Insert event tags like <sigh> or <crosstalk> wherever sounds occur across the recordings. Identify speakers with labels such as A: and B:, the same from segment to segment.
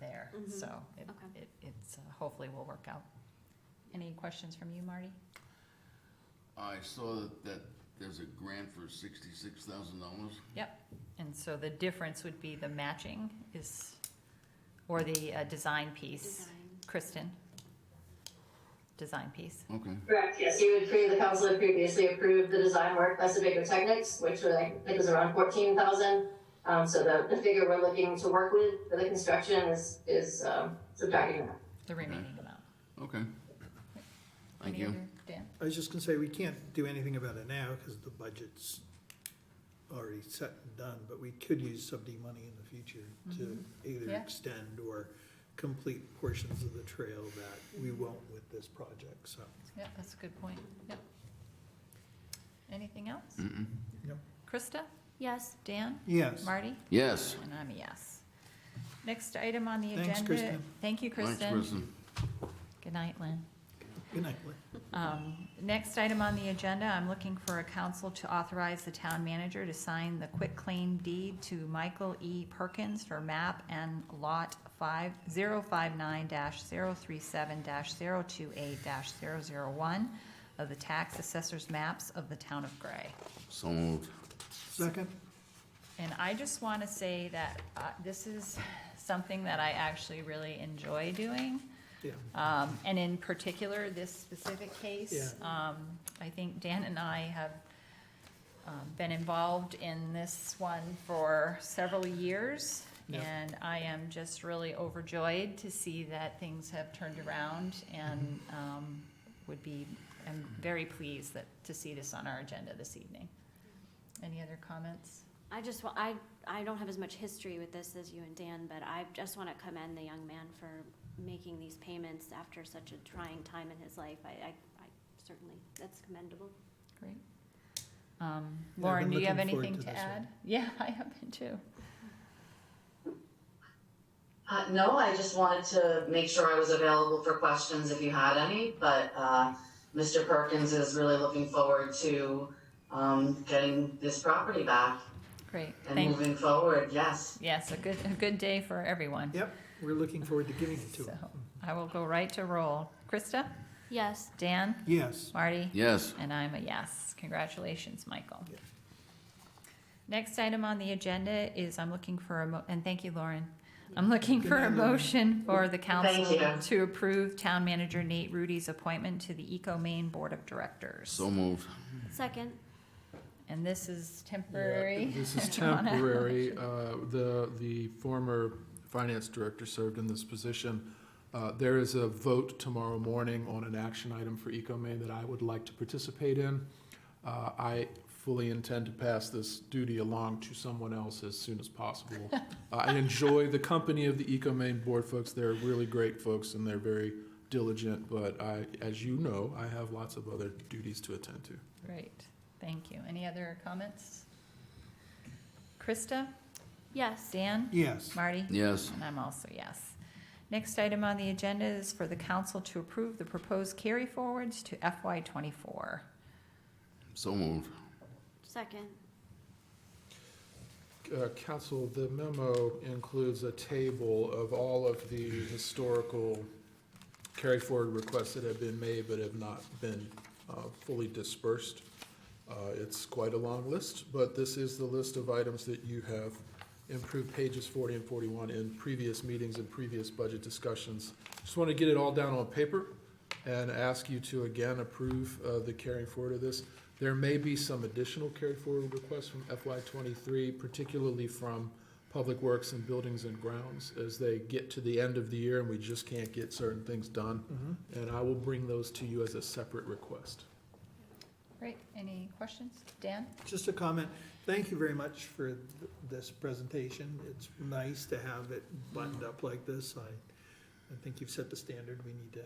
A: there,
B: Mhm.
A: so it,
B: Okay.
A: it, it's, uh, hopefully will work out. Any questions from you, Marty?
C: I saw that, that there's a grant for sixty-six thousand dollars.
A: And so the difference would be the matching is, or the, uh, design piece.
B: Design.
A: Kristen? Design piece.
C: Okay.
D: Correct, yes, you would pre, the council had previously approved the design work by Sebago Technics, which was, I think was around fourteen thousand. Um, so the, the figure we're looking to work with for the construction is, is, um, subtracting that.
A: The remaining amount.
C: Okay. Thank
A: Any
C: you.
A: other- Dan?
E: I was just gonna say, we can't do anything about it now, cause the budget's already set and done, but we could use subsidy money in the future to either
A: Mm-hmm. Yeah.
E: extend or complete portions of the trail that
A: Mm-hmm.
E: we won't with this project, so.
A: Yeah, that's a good point. Yep. Anything else?
C: Mm-mm.
A: Krista?
B: Yes.
A: Dan?
E: Yes,
A: Marty?
C: Yes.
A: And I'm a yes. Next item on the agenda.
E: Thanks, Kristen.
A: Thank you,
C: Thanks,
A: Kristen. Good night, Lynn.
E: good night, Lynn.
A: Um, Next item on the agenda, I'm looking for a council to authorize the town manager to sign the quitclaim deed to Michael E. Perkins for map and lot five, zero five nine dash zero three seven dash zero two eight dash zero zero one of the tax assessor's maps of the town of Gray.
C: So moved.
E: Second,
A: And I just want to say that uh, this is something that I actually really enjoy doing.
E: yeah,
A: Um, and in particular, this specific case, um, I think Dan and I have, um, been involved in this one for several years.
E: Yeah.
A: And I am just really overjoyed to see that things have turned around and,
E: Mm-hmm.
A: um, would be, I'm very pleased that, to see this on our agenda this evening. Any other comments?
B: I just, wa- I, I don't have as much history with this as you and Dan, but I just want to commend the young man for making these payments after such a trying time in his life. I, I, I certainly, that's commendable.
A: Great. Um,
E: I've
A: Lauren,
E: been
A: do you have
E: looking forward
A: anything
E: to
A: to
E: this one.
A: add? <laughs> Yeah, I have been too.
F: Uh, no, I just wanted to make sure I was available for questions if you had any, but, uh, Mr. Perkins is really looking forward to, um, getting this property back
A: Great,
F: and
A: thank,
F: moving forward, yes.
A: yes, a good, a good day for everyone.
E: yep, we're looking forward to giving it to
A: So
E: him.
A: I will go right to roll. Krista?
B: Yes.
A: Dan?
E: Yes,
A: Marty?
C: Yes.
A: And I'm a yes. Congratulations, Michael.
E: Yeah.
A: Next item on the agenda is I'm looking for a, mo- and thank you, Lauren. I'm looking
E: Good
A: for a
E: night, Lauren.
A: motion for the council
F: you.
A: to approve Town Manager Nate Rudy's appointment to the Eco Maine Board of Directors.
C: So moved.
B: Second,
A: And this is
G: Yeah,
A: temporary.
G: This
A: <laughs>
G: is
A: Do you wanna- <laughs>
G: temporary. Uh, The, the former finance director served in this position. Uh, There is a vote tomorrow morning on an action item for EcoMaine that I would like to participate in. Uh, I fully intend to pass this duty along to someone else as soon as
A: <laughs>
G: possible. Uh, I enjoy the company of the EcoMaine board folks. They're really great folks and they're very diligent, but I, as you know, I have lots of other duties to attend to.
A: Great, thank you. Any other comments? Krista?
B: yes.
A: Dan?
E: yes,
A: Marty?
C: Yes.
A: And I'm also yes. Next item on the agenda is for the council to approve the proposed carry forwards to FY twenty-four.
C: So moved.
B: Second,
G: Uh, Council, the memo includes a table of all of the historical carry forward requests that have been made but have not been uh, fully dispersed. Uh, It's quite a long list, but this is the list of items that you have improved pages 40 and 41 in previous meetings and previous budget discussions. Just want to get it all down on paper and ask you to again approve uh, the carrying forward of this. There may be some additional carry forward requests from FY '23, particularly from Public Works and Buildings and Grounds, as they get to the end of the year and we just can't get certain things done.
E: Mm-hmm.
G: And I will bring those to you as a separate request.
A: Great, any questions? Dan?
E: just a comment, thank you very much for th- this presentation, it's nice to have it buttoned up like this, I, I think you've set the standard we need to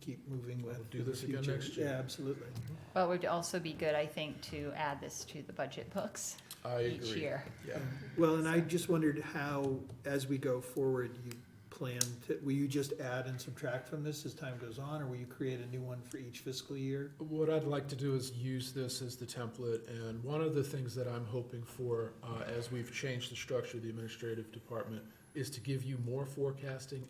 E: keep moving with.
G: do
E: in the
G: this again
E: future.
G: next year.
E: Yeah, absolutely.
A: Well, it would also be good, I think, to add this to the budget books
G: I
A: each
G: agree.
A: year.
G: Yeah.
E: Um, Well, and I just wondered how, as we go forward, you plan to, will you just add and subtract from this as time goes on, or will you create a new one for each fiscal year?
G: What I'd like to do is use this as the template, and one of the things that I'm hoping for, uh, as we've changed the structure of the administrative department, is to give you more forecasting